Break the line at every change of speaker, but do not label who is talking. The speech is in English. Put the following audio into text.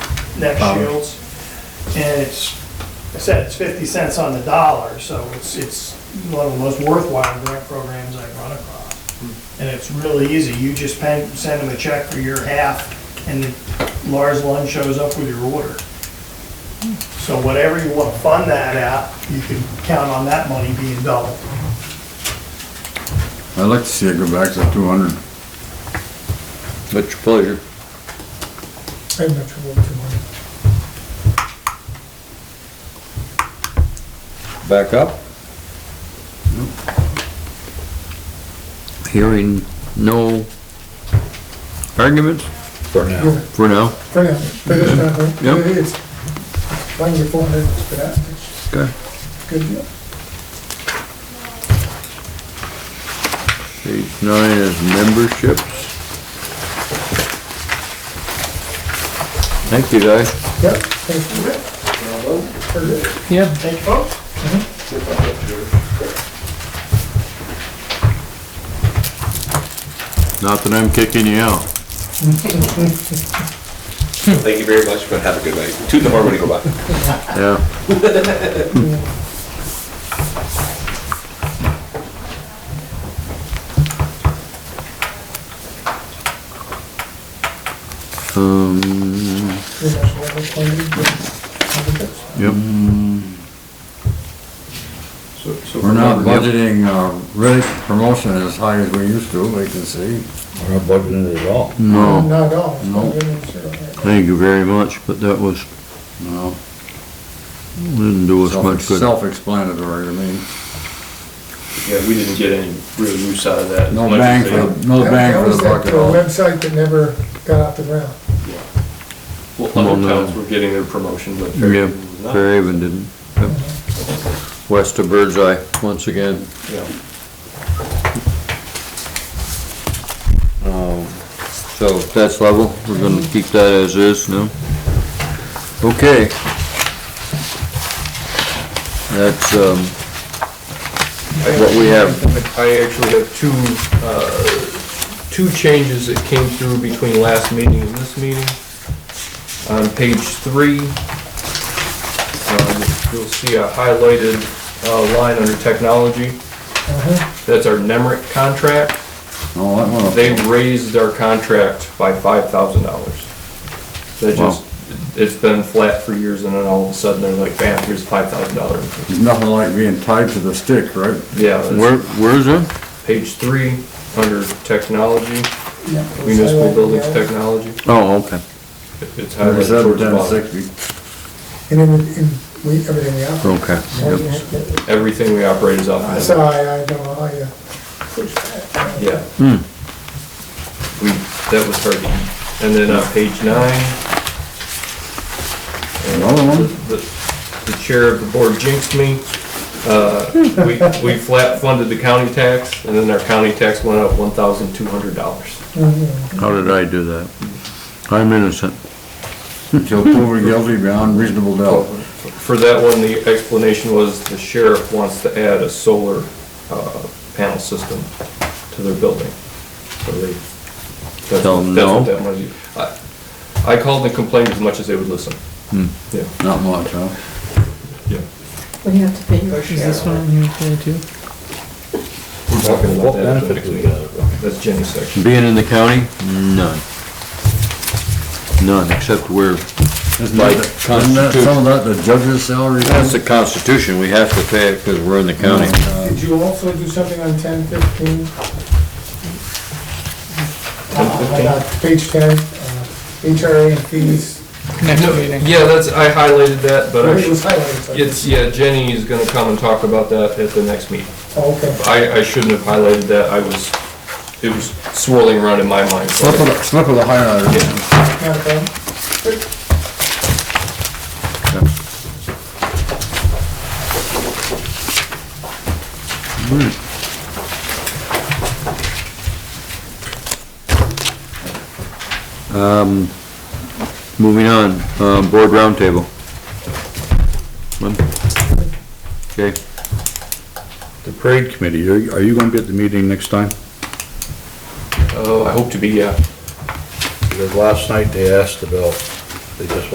neck
Um.
shields. And it's, I said, it's 50 cents on the dollar, so it's, it's one of the most worthwhile grant programs I've run across. And it's really easy, you just pen- send them a check for your half, and then Lars Lund shows up with your order. So whatever you want to fund that at, you can count on that money being doubled.
I'd like to see it go back to two hundred.
What's your pleasure?
I'm not sure what you want.
Back up? Hearing no arguments? For
now.
For now,
For now, for this time, right?
Yep.
It's one year, four hundred, it's fantastic,
okay.
good deal.
Page nine is memberships. Thank you, guys.
Yep, thank you. Very good.
Yeah.
Thank you, folks.
Not that I'm kicking you out.
Thank you very much, but have a good night. Two tomorrow when you go back.
Yeah. Um,
Very much welcome for you, but have a good-
yep.
We're not budgeting, uh, rate promotion as high as we used to, we can see.
We're not budgeting it at all.
No,
Not at all. It's
No.
not even zero, right?
thank you very much, but that was,
No.
didn't do us
Self-
much good.
Self-explanatory, I mean,
Yeah, we didn't get any real use out of that.
no
Like I
bang
say,
for, no
That-
bang
that
for
was
the
that,
buck at
uh,
all.
Website that never got off the ground.
Well, other
Well, no.
towns were getting their promotion, but
Yeah,
Fairhaven was not.
Fairhaven didn't. Yep. West of Birdseye, once again.
Yeah.
Um, So that's level, we're gonna keep that as is now. Okay. That's, um, what we have.
I actually have two, uh, two changes that came through between last meeting and this meeting. On page three, um, you'll see a highlighted uh, line under technology. That's our NEMRIC contract.
Oh,
No, that one,
They raised our contract by $5,000. That
Wow.
just, it's been flat for years and then all of a sudden they're like, bam, here's $5,000.
it's nothing like being tied to the stick, right?
Yeah. that's-
Where, where's it?
Page three, under technology,
Yeah, it was
municipal
highlighted
buildings
yellow.
technology.
Oh, okay.
It's highlighted
Thirty-seven,
towards the
ten,
bottom.
sixty.
And then, we- and we, everything we operate.
Okay. Yep.
Everything we operate is off.
I
of
saw,
that.
I, I don't know, I, uh, push that.
Yeah.
Hmm.
We, that was hard to eat. And then on page nine,
Another one?
the, the- the chair of the board jinxed me. Uh, we, we flat funded the county tax and then our county tax went up one thousand two hundred dollars.
How did I do that? I'm innocent.
Till proven guilty beyond reasonable doubt.
For that one, the explanation was the sheriff wants to add a solar uh, panel system to their building. So they, that's
Tell
what
them
that's
no.
what that money, I- I called and complained as much as they would listen.
Hmm.
Yeah,
Not much, huh?
yeah.
We have to pay your share.
We're talking about
What
that at the
benefit
next
do we
meeting.
get out of it?
That's Jenny's section.
Being in the county? None. None, except we're,
Isn't
By
that, the- isn't that some of that the judge's salary?
that's the constitution, we have to pay it because we're in the county.
Did you also do something on ten fifteen? Page ten, uh, HRA and fees.
No, Yeah, that's, I highlighted that, but
It
I,
was highlighted. so-
it's, yeah, Jenny is gonna come and talk about that at the next meeting.
Oh, Okay.
I, I shouldn't have highlighted that, I was, it was swirling around in my mind. so I-
Slip of, the- slip of the highlighter.
Not a problem.
Moving on, um, board roundtable. Lynn? Okay,
The parade committee, are you, are you gonna be at the meeting next time?
Oh, I hope to be, yeah.
Because last night they asked about, they just